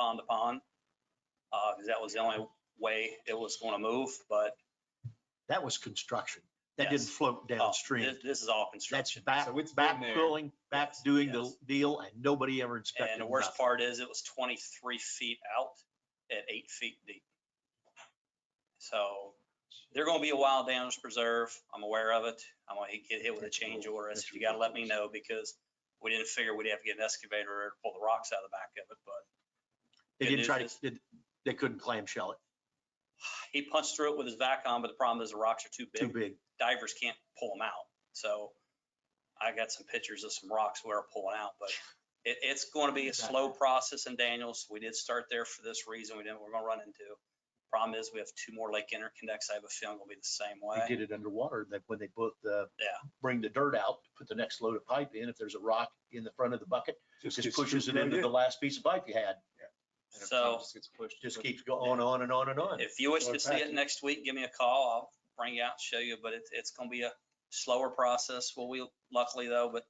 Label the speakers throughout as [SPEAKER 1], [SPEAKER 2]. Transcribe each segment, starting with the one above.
[SPEAKER 1] pond to pond. Uh, 'cause that was the only way it was going to move, but
[SPEAKER 2] That was construction. That
[SPEAKER 1] Yes.
[SPEAKER 2] didn't float
[SPEAKER 1] uh,
[SPEAKER 2] downstream.
[SPEAKER 1] This, this is all
[SPEAKER 2] That's
[SPEAKER 1] construction.
[SPEAKER 2] back,
[SPEAKER 3] So it's
[SPEAKER 2] back
[SPEAKER 3] been there.
[SPEAKER 2] pulling, back
[SPEAKER 1] Yes,
[SPEAKER 2] doing the
[SPEAKER 1] yes.
[SPEAKER 2] deal and nobody ever inspected.
[SPEAKER 1] And the worst
[SPEAKER 2] nothing.
[SPEAKER 1] part is it was twenty-three feet out at eight feet deep. So they're gonna be a wild damage preserve. I'm aware of it. I'm gonna get hit with a change order. I said, you gotta let me know because we didn't figure we'd have to get an excavator to pull the rocks out of the back of it, but
[SPEAKER 2] They
[SPEAKER 1] good
[SPEAKER 2] didn't try
[SPEAKER 1] news
[SPEAKER 2] to, did- they couldn't clamshell it.
[SPEAKER 1] he punched through it with his vacuum, but the problem is the rocks are too
[SPEAKER 2] Too
[SPEAKER 1] big.
[SPEAKER 2] big.
[SPEAKER 1] Divers can't pull them out. So I got some pictures of some rocks we we're pulling out, but it, it's going to be a slow process in Daniels. We did start there for this reason. We didn't, we're going to run into. Problem is we have two more lake interconnects. I have a feeling will be the same
[SPEAKER 2] They
[SPEAKER 1] way.
[SPEAKER 2] did it underwater. That when they put the,
[SPEAKER 1] Yeah.
[SPEAKER 2] bring the dirt out, put the next load of pipe in. If there's a rock in the front of the bucket, just
[SPEAKER 3] gets
[SPEAKER 2] pushes it
[SPEAKER 3] screwed
[SPEAKER 2] into
[SPEAKER 3] in.
[SPEAKER 2] the last piece of pipe you had.
[SPEAKER 3] And if it
[SPEAKER 1] So-
[SPEAKER 3] just gets pushed,
[SPEAKER 2] Just
[SPEAKER 3] pushed.
[SPEAKER 2] keeps going on and on and on.
[SPEAKER 1] If you wish
[SPEAKER 3] Throw
[SPEAKER 1] to
[SPEAKER 3] it
[SPEAKER 1] see
[SPEAKER 3] back
[SPEAKER 1] it
[SPEAKER 3] in.
[SPEAKER 1] next week, give me a call. I'll bring you out, and show you, but it's, it's going to be a slower process. Well, we luckily though, but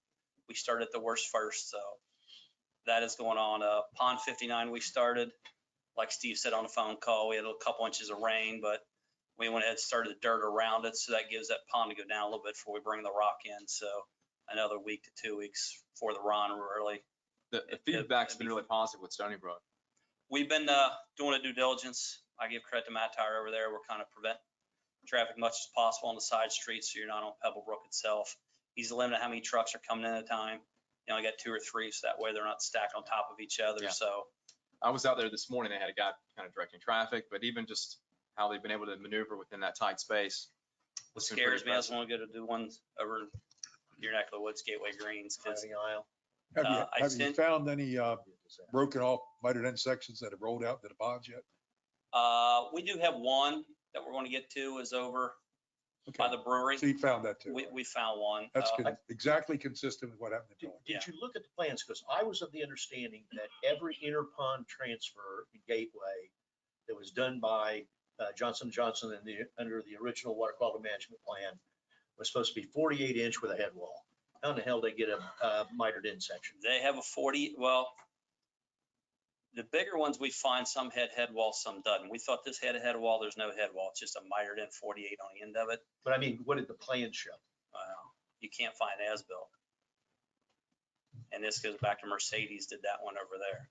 [SPEAKER 1] we started the worst first, so that is going on. Uh, pond fifty-nine, we started, like Steve said on the phone call, we had a couple inches of rain, but we went ahead and started the dirt around it, so that gives that pond to go down a little bit before we bring the rock in, so another week to two weeks for the run, we're really
[SPEAKER 3] The, the
[SPEAKER 1] it- it-
[SPEAKER 3] feedback's
[SPEAKER 1] it'd
[SPEAKER 3] been
[SPEAKER 1] be-
[SPEAKER 3] really positive with Stony Brook.
[SPEAKER 1] we've been uh, doing a due diligence. I give credit to Matt Tire over there. We're kind of prevent traffic much as possible on the side streets, so you're not on Pebble Brook itself. He's limited how many trucks are coming in at a time. You only got two or three, so that way they're not stacked on top of each other.
[SPEAKER 3] Yeah.
[SPEAKER 1] So
[SPEAKER 3] I was out there this morning, they had a guy kind of directing traffic, but even just how they've been able to maneuver within that tight space.
[SPEAKER 1] what
[SPEAKER 3] it's been pretty
[SPEAKER 1] scares me, I was
[SPEAKER 3] impressive.
[SPEAKER 1] only going to do one over your neck of the woods, Gateway Greens, because
[SPEAKER 2] Driving aisle.
[SPEAKER 4] Have
[SPEAKER 1] Uh, I
[SPEAKER 4] you, have you
[SPEAKER 1] sent-
[SPEAKER 4] found any uh, broken off mitered end sections that have rolled out to the ponds yet?
[SPEAKER 1] uh, we do have one that we're going to get to is over by
[SPEAKER 4] Okay,
[SPEAKER 1] the brewery.
[SPEAKER 4] so you found that too.
[SPEAKER 1] We, we found one.
[SPEAKER 4] That's
[SPEAKER 1] Uh,
[SPEAKER 4] con- exactly consistent with what happened to
[SPEAKER 2] Did
[SPEAKER 4] John.
[SPEAKER 2] did you look at the plans? Because I was of the understanding that every interpond transfer in Gateway that was done by uh, Johnson Johnson and the, under the original water quality management plan was supposed to be 48 inch with a head wall. How in the hell they get a uh, mitered in section?
[SPEAKER 1] They have a forty, well, the bigger ones, we find some had head wall, some doesn't. We thought this had a head wall, there's no head wall, it's just a mitered in forty-eight on the end of it.
[SPEAKER 2] But I mean, what did the plan show?
[SPEAKER 1] Wow, uh, You can't find as-built. And this goes back to Mercedes did that one over there.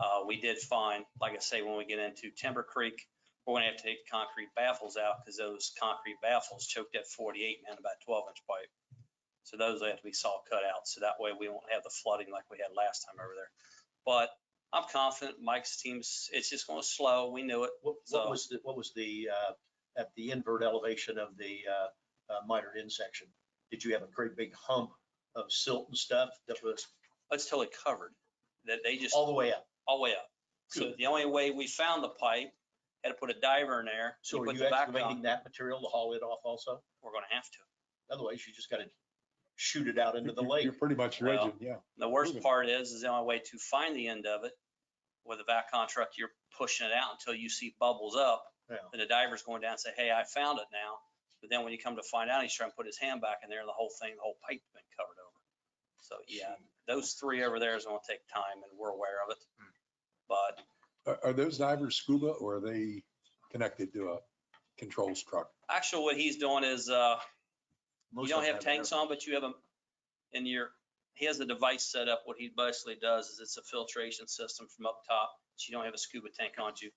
[SPEAKER 1] Uh, we did find, like I say, when we get into Timber Creek, we're gonna have to take concrete baffles out because those concrete baffles choked at forty-eight and about twelve-inch pipe. So those have to be saw cut out, so that way we won't have the flooding like we had last time over there. But I'm confident Mike's team's, it's just gonna slow, we knew it.
[SPEAKER 2] What,
[SPEAKER 1] So-
[SPEAKER 2] what was, the what was the, uh, at the invert elevation of the uh, uh, mitered in section? Did you have a great big hump of silt and stuff that was
[SPEAKER 1] It's totally covered, that they just.
[SPEAKER 2] all the way up?
[SPEAKER 1] all the way up. Oh, So the only way we found the pipe, had to put a diver in there.
[SPEAKER 2] So are
[SPEAKER 1] put
[SPEAKER 2] you
[SPEAKER 1] the back on.
[SPEAKER 2] excavating that material to haul it off also?
[SPEAKER 1] We're gonna have to.
[SPEAKER 2] Otherwise, you just gotta shoot it out into the
[SPEAKER 4] You-
[SPEAKER 2] lake.
[SPEAKER 4] You're pretty much
[SPEAKER 1] Well,
[SPEAKER 4] dredging, yeah.
[SPEAKER 1] The worst
[SPEAKER 4] Moving.
[SPEAKER 1] part is, is the only way to find the end of it, with a vacuum truck, you're pushing it out until you see bubbles up.
[SPEAKER 2] Yeah.
[SPEAKER 1] And the diver's going down and say, hey, I found it now. But then when you come to find out, he's trying to put his hand back in there and the whole thing, the whole pipe's been covered over. So yeah, those three over there is gonna take time and we're aware of it.
[SPEAKER 2] Hmm.
[SPEAKER 1] But
[SPEAKER 4] Are, are those divers scuba or are they connected to a controls truck?
[SPEAKER 1] actually what he's doing is, uh, You
[SPEAKER 2] Most
[SPEAKER 1] don't
[SPEAKER 2] of them
[SPEAKER 1] have tanks on, but you have them in your, he has a device set up. What he basically does is it's a filtration system from up top. So you don't have a scuba tank on you.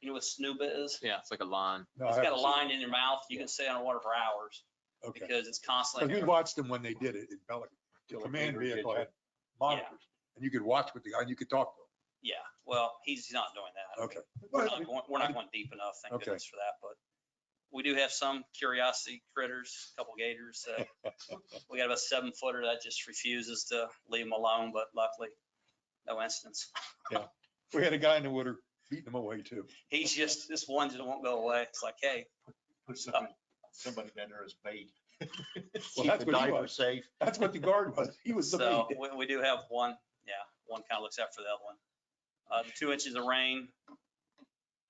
[SPEAKER 1] You know what snuba is?
[SPEAKER 3] Yeah, it's like a line.
[SPEAKER 4] No, I
[SPEAKER 1] It's got a
[SPEAKER 4] haven't seen
[SPEAKER 1] line in your mouth. You can
[SPEAKER 4] Yeah.
[SPEAKER 1] stay underwater for hours
[SPEAKER 4] it. Okay.
[SPEAKER 1] because it's
[SPEAKER 4] 'Cause
[SPEAKER 1] constantly.
[SPEAKER 4] we watched them when they did it in Pelican. The
[SPEAKER 2] Like
[SPEAKER 4] command
[SPEAKER 2] Andrew did
[SPEAKER 4] vehicle had
[SPEAKER 2] that.
[SPEAKER 4] monitors and you could watch with the guy and you could talk to
[SPEAKER 1] Yeah, well, he's not doing that.
[SPEAKER 4] him. Okay.
[SPEAKER 1] We're
[SPEAKER 4] Well,
[SPEAKER 1] not going, we're not going deep enough, thank
[SPEAKER 4] Okay.
[SPEAKER 1] goodness for that, but we do have some curiosity critters, a couple gators. that- We got about seven footer that just refuses to leave them alone, but luckily, no incidents.
[SPEAKER 4] We had a guy in the water beating him away too.
[SPEAKER 1] He's just, this one just won't go away. It's like, hey,
[SPEAKER 2] Put somebody- Somebody in there as bait. Keep
[SPEAKER 4] Well, that's
[SPEAKER 2] the
[SPEAKER 4] what he
[SPEAKER 2] diver
[SPEAKER 4] was.
[SPEAKER 2] safe.
[SPEAKER 4] That's what the guard was. He was the
[SPEAKER 1] so
[SPEAKER 4] lead.
[SPEAKER 1] we, we do have one, yeah, one kind of looks out for that one. Uh, the two inches of rain.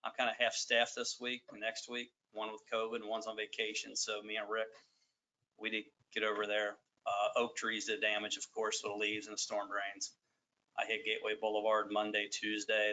[SPEAKER 1] I'm kind of half staffed this week, and next week, one with COVID and one's on vacation. So me and Rick, we did get over there. Uh, oak trees did damage, of course, with the leaves and the storm drains. I hit Gateway Boulevard Monday, Tuesday.